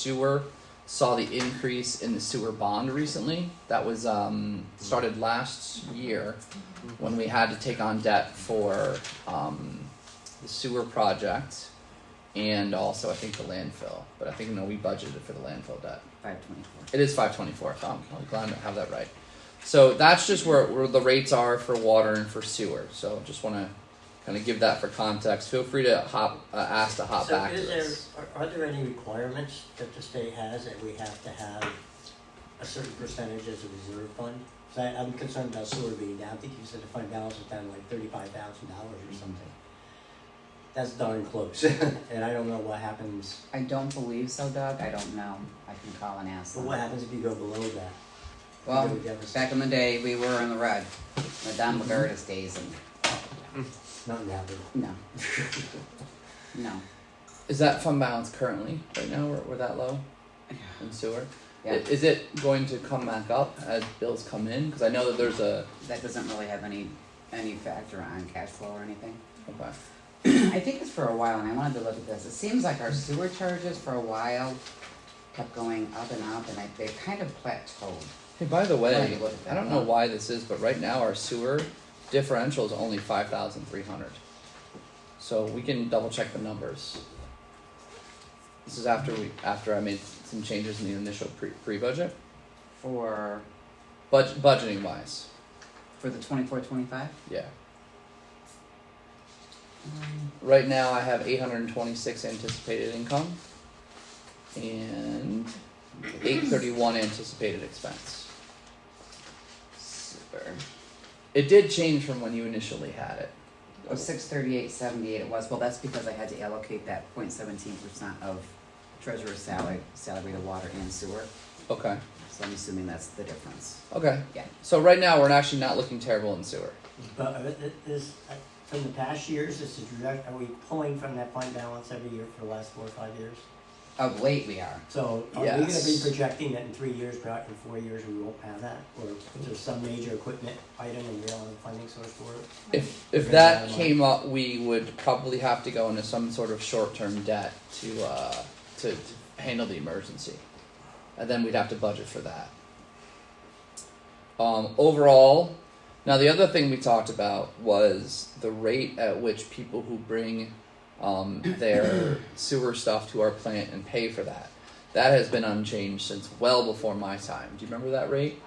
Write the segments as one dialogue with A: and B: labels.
A: sewer saw the increase in the sewer bond recently. That was um, started last year when we had to take on debt for um, the sewer project and also I think the landfill. But I think no, we budgeted for the landfill debt.
B: Five twenty-four.
A: It is five twenty four. I'm, I'm glad to have that right. So that's just where, where the rates are for water and for sewer. So just want to kind of give that for context. Feel free to hop uh, ask to hop
C: So
A: back to
C: is
A: this.
C: there, are, are there any requirements that the state has that we have to have a certain percentage as a reserve fund? 'Cause I, I'm concerned about sewer being down, I think you said the fund balance was down to like thirty-five thousand dollars or something. That's darn close, and I don't know what happens,
B: I don't believe so, Doug. I don't know. I can call and ask
C: but
B: them.
C: what happens if you go below that?
B: Well,
C: You go deficit.
B: back in the day, we were in the red. Madame Lagarde's days and,
C: Not now, but
B: no. No.
A: Is that fund balance currently right now? We're, we're that low in sewer. I-
B: Yeah.
A: Is it going to come back up as bills come in? Because I know that there's a
B: That doesn't really have any, any factor on cash flow or anything.
A: okay.
B: I think it's for a while, and I wanted to look at this. It seems like our sewer charges for a while kept going up and up, and I, they kind of plateaued.
A: Hey, by the
B: Glad
A: way,
B: you looked at
A: I
B: that.
A: don't know why this is, but right now our sewer differential is only five thousand three hundred. So we can double check the numbers. This is after we after I made some changes in the initial pre pre budget,
B: For,
A: Bud- budgeting wise,
B: for the twenty-four, twenty-five?
A: yeah. Right now I have eight hundred and twenty six anticipated income, and eight thirty one anticipated expense.
B: Super.
A: It did change from when you initially had it.
B: Oh, six thirty-eight, seventy-eight it was. Well, that's because I had to allocate that 0.17 percent of treasurer's salary, salary to water and sewer.
A: Okay.
B: So I'm assuming that's the difference.
A: Okay.
B: Yeah.
A: So right now we're actually not looking terrible in sewer.
C: But uh, th- this, uh, from the past years, this is, direct- are we pulling from that fund balance every year for the last four or five years?
B: Of late, we are.
C: So are we gonna be
A: Yes.
C: projecting that in three years, perhaps in four years, we won't have that? Or is there some major equipment item and we don't have a funding source for it?
A: If if
C: Okay.
A: that came up, we would probably have to go into some sort of short term debt to uh to, to handle the emergency, and then we'd have to budget for that. Um, overall, now the other thing we talked about was the rate at which people who bring um, their sewer stuff to our plant and pay for that. That has been unchanged since well before my time. Do you remember that rate?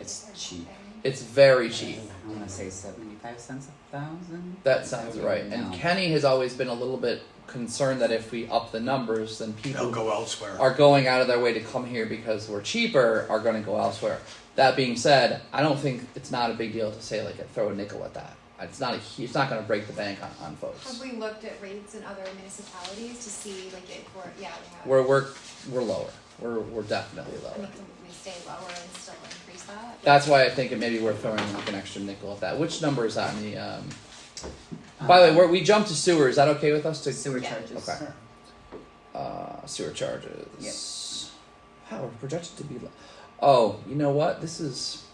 B: It's cheap.
A: It's very cheap.
B: I want to say seventy-five cents a thousand.
A: That sounds right. And
B: No.
A: Kenny has always been a little bit concerned that if we up the numbers, then
D: They'll
A: people
D: go elsewhere.
A: are going out of their way to come here because we're cheaper are going to go elsewhere. That being said, I don't think it's not a big deal to say like throw a nickel at that. It's not a hu- it's not going to break the bank on, on folks.
E: Have we looked at rates in other municipalities to see like if we're, yeah, we have,
A: We're we're we're lower. We're we're definitely
E: I mean,
A: lower.
E: can we stay lower and still increase that?
A: That's why I think it may be worth throwing like an extra nickel at that. Which number is that in the? Um, by the way, we're, we jumped to sewer. Is that okay with us to
B: Uh, Sewer
E: Yeah.
B: charges.
A: Okay. uh, sewer charges. Wow, we're projected to be. Low. Oh, you know what? This is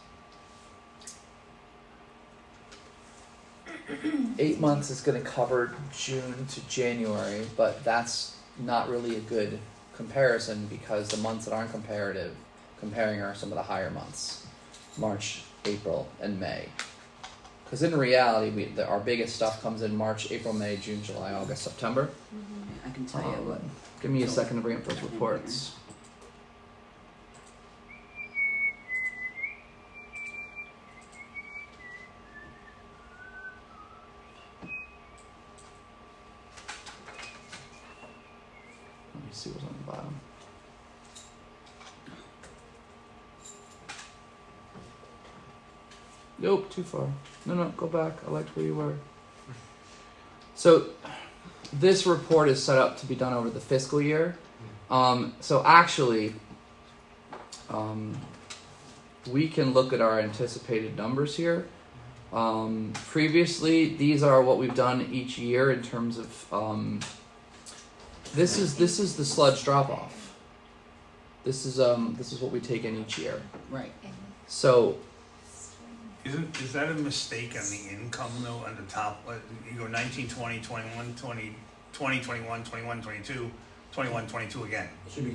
A: eight months is going to cover June to January, but that's not really a good comparison because the months that aren't comparative comparing are some of the higher months, March, April, and May. Because in reality, we the, our biggest stuff comes in March, April, May, June, July, August, September.
B: I can tell you what.
A: Um, Give me a second to bring up those reports. Let me see what's on the bottom. Nope, too far. No, no, go back. I liked where you were. So, this report is set up to be done over the fiscal year. Um, so actually, um, we can look at our anticipated numbers here. Um, previously, these are what we've done each year in terms of um, this is this is the sludge drop off. This is um, this is what we take in each year.
B: Right.
A: So
D: Isn't, is that a mistake on the income though, on the top, like, you go nineteen, twenty, twenty-one, twenty, twenty, twenty-one, twenty-one, twenty-two, twenty-one, twenty-two again?
C: It should be